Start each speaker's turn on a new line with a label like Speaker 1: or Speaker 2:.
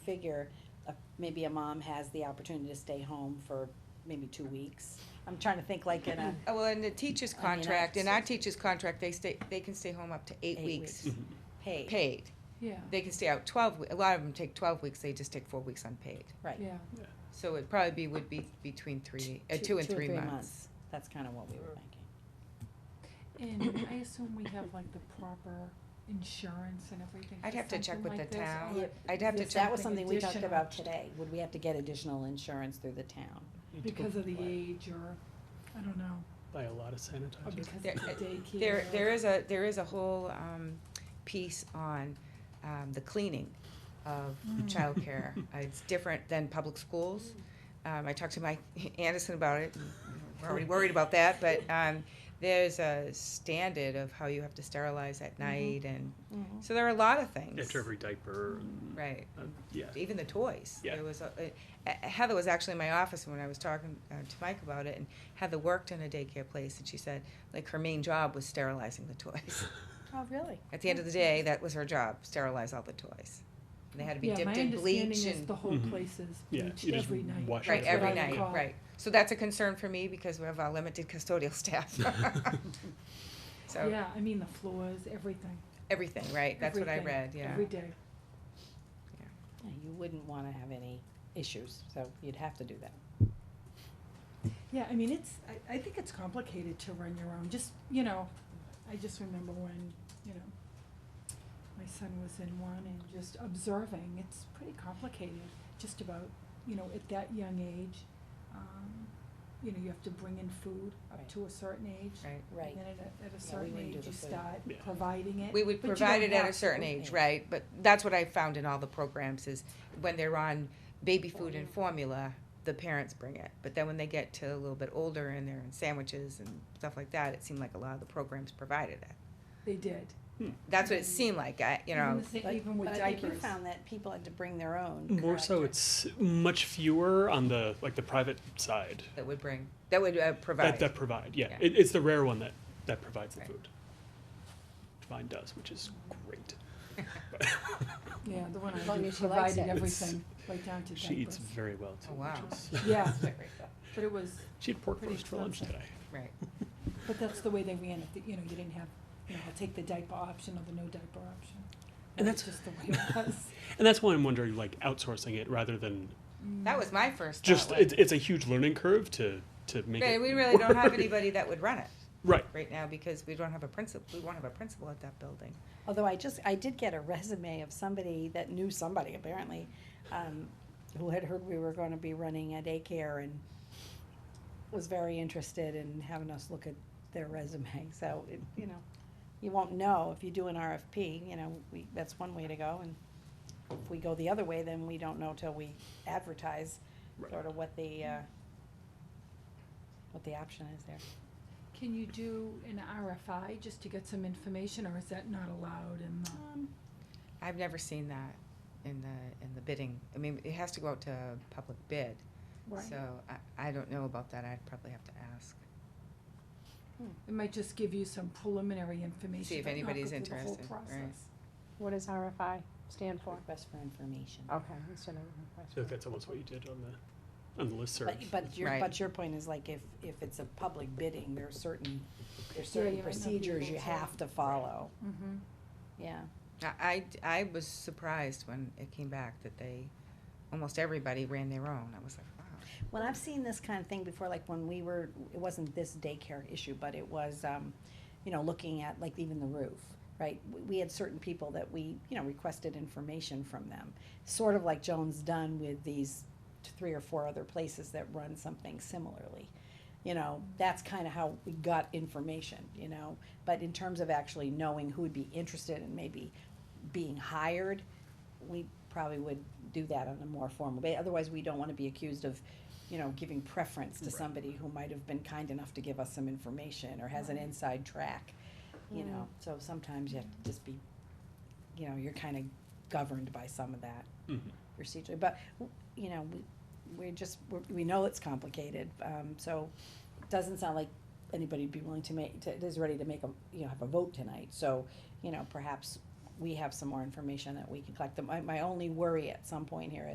Speaker 1: figure, a- maybe a mom has the opportunity to stay home for maybe two weeks. I'm trying to think like in a,
Speaker 2: Oh, well, in the teacher's
Speaker 1: I mean, I
Speaker 2: contract, in our
Speaker 1: just-
Speaker 2: teacher's contract, they stay, they can stay home up to eight
Speaker 1: Eight
Speaker 2: weeks
Speaker 1: weeks. paid,
Speaker 2: paid.
Speaker 3: Yeah,
Speaker 2: They can stay out twelve, we- a lot of them take twelve weeks, they just take four weeks unpaid.
Speaker 1: right.
Speaker 3: yeah.
Speaker 2: So it probably be, would be between three, uh, two and three months.
Speaker 1: That's kind of what we were thinking.
Speaker 3: And I assume we have like the proper insurance and everything.
Speaker 2: I'd
Speaker 3: for
Speaker 2: have to check
Speaker 3: something
Speaker 2: with
Speaker 3: like
Speaker 2: the
Speaker 3: this,
Speaker 2: town.
Speaker 3: or-
Speaker 1: Yep.
Speaker 2: I'd have to
Speaker 3: Is
Speaker 2: check,
Speaker 1: That was something we talked
Speaker 3: additional.
Speaker 1: about today. Would we have to get additional insurance through the town?
Speaker 3: Because of the age or, I don't know,
Speaker 4: Buy a lot of
Speaker 3: or
Speaker 4: sanitizer.
Speaker 3: because of the
Speaker 2: There-
Speaker 3: daycare.
Speaker 2: there, there is a, there is a whole, um, piece on, um, the cleaning of
Speaker 3: Mm.
Speaker 2: childcare. Uh, It's different than public schools. Um, I talked to Mike Anderson about it, and we're already worried about that, but, um, there's a standard of how you have to sterilize at night and,
Speaker 1: Mm-hmm.
Speaker 2: so there are a lot of things.
Speaker 4: After every diaper, and,
Speaker 2: Right.
Speaker 4: uh, yeah.
Speaker 2: even the toys.
Speaker 4: Yeah.
Speaker 2: There was a, a- a- Heather was actually in my office when I was talking uh, to Mike about it, and Heather worked in a daycare place, and she said like her main job was sterilizing the toys.
Speaker 1: Oh, really?
Speaker 2: At the end of the day, that was her job: sterilize all the toys. And they had to be dipped in
Speaker 3: Yeah, my
Speaker 2: bleach
Speaker 3: understanding is
Speaker 2: and
Speaker 3: the whole
Speaker 4: Mhm.
Speaker 3: place is
Speaker 4: Yeah,
Speaker 3: bleached
Speaker 4: you just
Speaker 3: every night.
Speaker 4: wash
Speaker 2: right
Speaker 4: That's
Speaker 2: every
Speaker 4: what I
Speaker 2: night,
Speaker 3: recall.
Speaker 2: right. So that's a concern for me because we have our limited custodial staff. so
Speaker 3: Yeah, I mean, the floors, everything,
Speaker 2: everything, right? That's what I
Speaker 3: Everything.
Speaker 2: read. Yeah.
Speaker 3: every day.
Speaker 1: You wouldn't want to have any issues, so you'd have to do that.
Speaker 3: Yeah, I mean, it's, I, I think it's complicated to run your own, just, you know, I just remember when, you know, my son was in one and just observing, it's pretty complicated, just about, you know, at that young age, um, you know, you have to bring in food up
Speaker 1: Right.
Speaker 3: to a certain age.
Speaker 2: Right.
Speaker 1: Right.
Speaker 3: And then at a, at a certain
Speaker 1: wouldn't do
Speaker 3: age,
Speaker 1: the
Speaker 3: you
Speaker 1: food.
Speaker 3: start
Speaker 4: Yeah.
Speaker 3: providing it.
Speaker 2: We would
Speaker 3: but you
Speaker 2: provide
Speaker 3: don't
Speaker 2: it at a
Speaker 3: have to.
Speaker 2: certain
Speaker 1: to.
Speaker 2: age, right, but that's what I found in all the programs is when they're on baby food and formula, the parents bring it, but then when they get to a little bit older and they're in sandwiches and stuff like that, it seemed like a lot of the programs provided it.
Speaker 3: They did,
Speaker 2: That's what it seemed like, I, you know,
Speaker 3: even the sa-
Speaker 1: But-
Speaker 3: even with
Speaker 1: But
Speaker 3: diapers.
Speaker 1: I think you found that people had to bring their own.
Speaker 4: More so,
Speaker 1: correct?
Speaker 4: it's much fewer on the like the private side
Speaker 2: that would bring, that would uh,
Speaker 4: that
Speaker 2: provide,
Speaker 4: that provide. Yeah,
Speaker 2: Yeah.
Speaker 4: It, it's the rare one that that provides the
Speaker 2: Right.
Speaker 4: food. Divine does, which is great.
Speaker 3: Yeah, the one
Speaker 1: As
Speaker 3: I
Speaker 1: long
Speaker 3: did
Speaker 1: as she likes
Speaker 3: provided
Speaker 1: it.
Speaker 3: everything, right down to diapers.
Speaker 4: She eats very well too.
Speaker 2: Oh, wow.
Speaker 4: which is-
Speaker 3: Yeah, but it was,
Speaker 4: she had pork
Speaker 3: Pretty
Speaker 4: roast for lunch today.
Speaker 3: expensive.
Speaker 2: right,
Speaker 3: but that's the way they ran it, that, you know, you didn't have, you know, I'll take the diaper option or the no diaper option.
Speaker 4: And
Speaker 3: That's
Speaker 4: that's-
Speaker 3: just the way it was.
Speaker 4: And that's why I'm wondering, like outsourcing it rather than
Speaker 2: that
Speaker 3: Mm.
Speaker 2: was my first thought,
Speaker 4: just
Speaker 2: like,
Speaker 4: it's it's a huge learning curve to to make
Speaker 2: right,
Speaker 4: it.
Speaker 2: we really don't have
Speaker 4: work.
Speaker 2: anybody that would run it
Speaker 4: Right.
Speaker 2: right now because we don't have a principal, we won't have a principal at that building.
Speaker 1: Although I just, I did get a resume of somebody that knew somebody apparently, um, who had heard we were gonna be running a daycare and was very interested in having us look at their resume, so it, you know, you won't know if you do an RFP, you know, we, that's one way to go, and if we go the other way, then we don't know till we advertise
Speaker 4: Right.
Speaker 1: sort of what the, uh, what the option is there.
Speaker 3: Can you do an RFI just to get some information, or is that not allowed in the?
Speaker 1: Um,
Speaker 2: I've never seen that in the, in the bidding. I mean, it has to go out to public bid. So I, I don't know about that. I'd probably have to ask.
Speaker 3: It might just give you some preliminary information.
Speaker 2: See if
Speaker 3: but not
Speaker 2: anybody's
Speaker 3: go through the whole
Speaker 2: interested, right.
Speaker 3: process.
Speaker 5: What does RFI stand for?
Speaker 1: Request for information.
Speaker 5: Okay, instead of request.
Speaker 4: So that's almost what you did on the on the listserv.
Speaker 1: But, but your,
Speaker 2: Right.
Speaker 1: but your point is like if, if it's a public bidding, there are certain, there's
Speaker 3: Yeah, you
Speaker 1: certain
Speaker 3: might not be
Speaker 1: procedures
Speaker 3: able
Speaker 1: you
Speaker 3: to-
Speaker 1: have to follow,
Speaker 3: Mhm.
Speaker 1: yeah.
Speaker 2: I, I, I was surprised when it came back that they, almost everybody ran their own. I was like, wow.
Speaker 1: Well, I've seen this kind of thing before, like when we were, it wasn't this daycare issue, but it was, um, you know, looking at like even the roof, right? We, we had certain people that we, you know, requested information from them, sort of like Joan's done with these t- three or four other places that run something similarly. You know, that's kind of how we got information, you know, but in terms of actually knowing who would be interested and maybe being hired, we probably would do that on a more formal way. Otherwise, we don't want to be accused of, you know, giving preference to somebody who might have been kind enough to give us some information or has an inside track, you know. So sometimes you have to just be, you know, you're kind of governed by some of that
Speaker 4: Mhm.
Speaker 1: procedure. But, w- you know, we, we're just, we're- we know it's complicated, um, so it doesn't sound like anybody'd be willing to make, to, is ready to make a, you know, have a vote tonight. So, you know, perhaps we have some more information that we can collect. My, my only worry at some point here